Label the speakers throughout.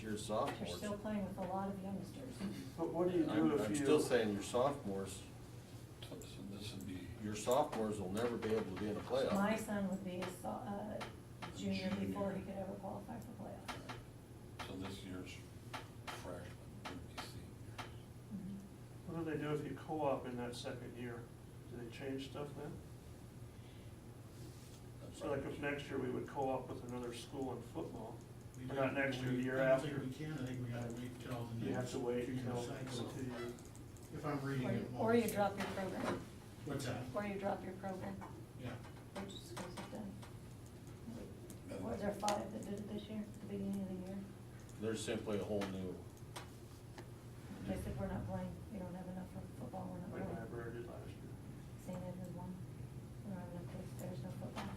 Speaker 1: you're
Speaker 2: You're
Speaker 1: sophomores.
Speaker 2: still playing with a lot of youngsters.
Speaker 3: But what do you do
Speaker 1: I'm,
Speaker 3: if you?
Speaker 1: I'm still saying your sophomores,
Speaker 4: So this would be,
Speaker 1: your sophomores will never be able to be in a
Speaker 2: My
Speaker 1: playoff.
Speaker 2: son would be a so- uh, junior before he could ever qualify for playoffs.
Speaker 4: so this year's freshman would be senior.
Speaker 2: Mhm.
Speaker 3: What do they do if you co-op in that second year? Do they change stuff then? So like if next year we would co-op with another school in football, or not next year, the year
Speaker 5: I
Speaker 3: after,
Speaker 5: don't think we can, I think we gotta wait till the next.
Speaker 3: you have to wait
Speaker 5: two-year
Speaker 3: until
Speaker 5: cycle.
Speaker 3: two years.
Speaker 5: If I'm reading
Speaker 2: Or-
Speaker 5: it.
Speaker 2: Or you
Speaker 5: wrong.
Speaker 2: drop your program,
Speaker 5: What's that?
Speaker 2: or you drop your program,
Speaker 5: Yeah.
Speaker 2: which schools have done. Was there five that did it this year, at the beginning of the year?
Speaker 1: They're simply a whole new,
Speaker 2: They said, we're not playing, we don't have enough for football, we're not
Speaker 3: like
Speaker 2: playing.
Speaker 3: Iberia did last year.
Speaker 2: St. Edmund won. We don't have enough kids, there's no football.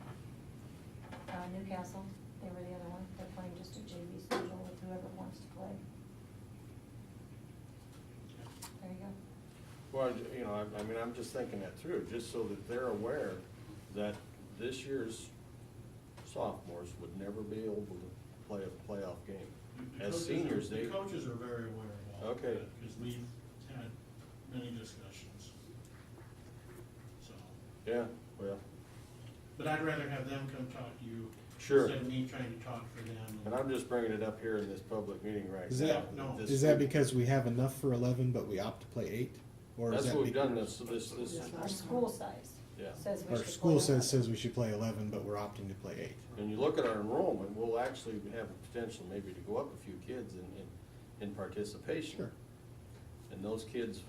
Speaker 2: Uh, Newcastle, they were the other one, they're playing just a JV schedule with whoever wants to play. There you go.
Speaker 1: well, you know, I, I mean, I'm just thinking that through, just so that they're aware that this year's sophomores would never be able to play a playoff game.
Speaker 5: The- the
Speaker 1: As
Speaker 5: coaches are-
Speaker 1: seniors, they.
Speaker 5: The coaches are very aware of all of
Speaker 1: Okay.
Speaker 5: that, because we've had many discussions. So,
Speaker 1: Yeah, well,
Speaker 5: but I'd rather have them come talk to you.
Speaker 1: Sure.
Speaker 5: Instead of me trying to talk for them.
Speaker 1: and I'm just bringing it up here in this public meeting right
Speaker 6: Is
Speaker 1: now.
Speaker 6: that-
Speaker 5: no,
Speaker 1: This-
Speaker 6: Is that because we have enough for eleven, but we opt to play eight? Or is
Speaker 1: That's
Speaker 6: that
Speaker 1: what we've
Speaker 6: be-
Speaker 1: done this, this, this,
Speaker 2: Our school size
Speaker 1: Yeah.
Speaker 2: says we should.
Speaker 6: Our school
Speaker 2: play
Speaker 6: says,
Speaker 2: eleven.
Speaker 6: says we should play eleven, but we're opting to play eight.
Speaker 1: and you look at our enrollment, we'll actually have a potential maybe to go up a few kids in, in, in participation.
Speaker 6: Sure.
Speaker 1: And those kids,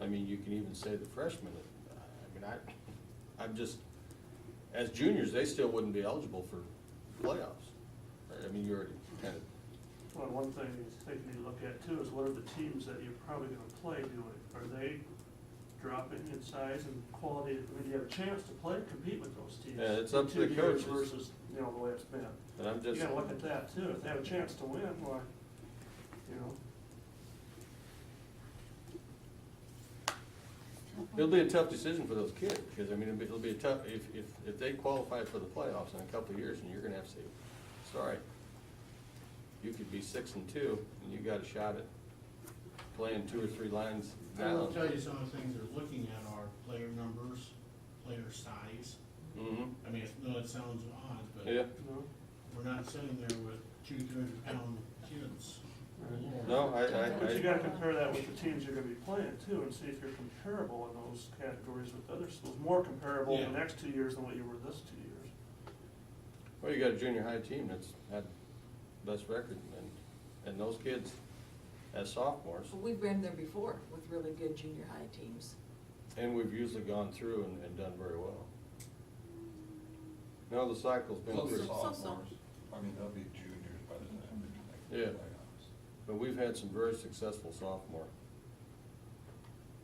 Speaker 1: I mean, you can even say the freshmen, I mean, I, I'm just, as juniors, they still wouldn't be eligible for playoffs. I mean, you already kind of,
Speaker 3: Well, one thing you think you need to look at too is what are the teams that you're probably gonna play doing? Are they dropping in size and quality? I mean, do you have a chance to play, compete with those teams?
Speaker 1: Yeah, it's up to
Speaker 3: in
Speaker 1: the
Speaker 3: two years
Speaker 1: coaches.
Speaker 3: Versus, you know, the way it's been.
Speaker 1: and I'm
Speaker 3: You
Speaker 1: just,
Speaker 3: gotta look at that too. If they have a chance to win, why, you know?
Speaker 1: it'll be a tough decision for those kids, because I mean, it'll be, it'll be a tough, if, if, if they qualify for the playoffs in a couple of years, and you're gonna have to say, sorry, you could be six and two, and you got a shot at playing two or three lines
Speaker 5: I will
Speaker 1: down.
Speaker 5: tell you some of the things they're looking at are player numbers, player size.
Speaker 1: Mhm.
Speaker 5: I mean, it's- no, it sounds odd, but
Speaker 1: yeah,
Speaker 3: You know?
Speaker 5: we're not sitting there with two, three hundred pound kids.
Speaker 1: no, I,
Speaker 3: But you
Speaker 1: I, I,
Speaker 3: gotta compare that with the teams you're gonna be playing too, and see if you're comparable in those categories with other schools, more comparable in the
Speaker 5: Yeah.
Speaker 3: next two years than what you were this two years.
Speaker 1: well, you got a junior high team that's had best record, and, and those kids as sophomores,
Speaker 7: Well, We've been there before with really good junior high teams.
Speaker 1: and we've usually gone through and, and done very well. No, the cycle's been
Speaker 4: Well,
Speaker 7: Close.
Speaker 1: pretty,
Speaker 4: they're
Speaker 7: So- so- so.
Speaker 4: sophomores, I mean, they'll be juniors by the time we connect to
Speaker 1: Yeah.
Speaker 4: the playoffs.
Speaker 1: but we've had some very successful sophomore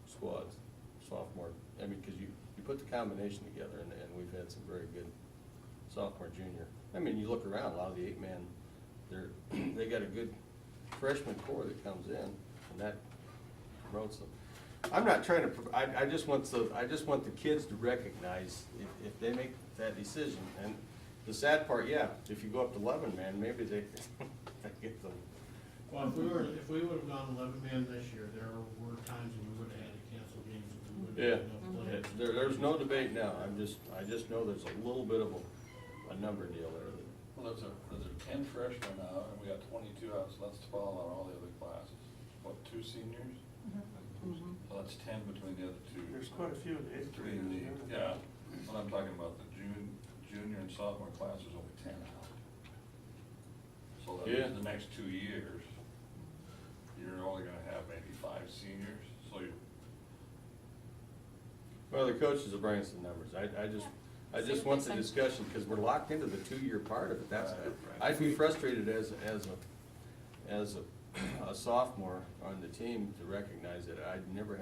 Speaker 1: squads, sophomore, I mean, cause you, you put the combination together, and, and we've had some very good sophomore, junior. I mean, you look around, a lot of the eight-man, they're, they got a good freshman core that comes in, and that promotes them. I'm not trying to, pro- I, I just want the, I just want the kids to recognize if, if they make that decision, and the sad part, yeah, if you go up to eleven man, maybe they, they get them.
Speaker 5: Well, if we were, if we would've gone eleven man this year, there were times when we would've had to cancel games if we
Speaker 1: Yeah,
Speaker 5: would've had
Speaker 4: Mm-hmm.
Speaker 5: enough
Speaker 1: It-
Speaker 5: players.
Speaker 1: there, there's no debate now, I'm just, I just know there's a little bit of a, a number deal there that.
Speaker 4: Well, there's a, there's a ten freshmen now, and we got twenty-two out, so that's twelve on all the other classes. What, two seniors?
Speaker 2: Mhm.
Speaker 7: Mm-hmm.
Speaker 4: So that's ten between the other two.
Speaker 3: There's quite a few in the eighth
Speaker 4: Three
Speaker 3: grade.
Speaker 4: in the,
Speaker 3: isn't there?
Speaker 4: yeah, but I'm talking about the jun, junior and sophomore class, there's only ten out. So that
Speaker 1: Yeah.
Speaker 4: means the next two years, you're only gonna have maybe five seniors, so you,
Speaker 1: Well, the coaches will bring us the numbers, I, I just, I
Speaker 7: See
Speaker 1: just
Speaker 7: what
Speaker 1: want
Speaker 7: they
Speaker 1: the
Speaker 7: say.
Speaker 1: discussion, because we're locked into the two-year part of it, that's,
Speaker 4: Right, right.
Speaker 1: I'd be frustrated as, as a, as a, a sophomore on the team to recognize that I'd never have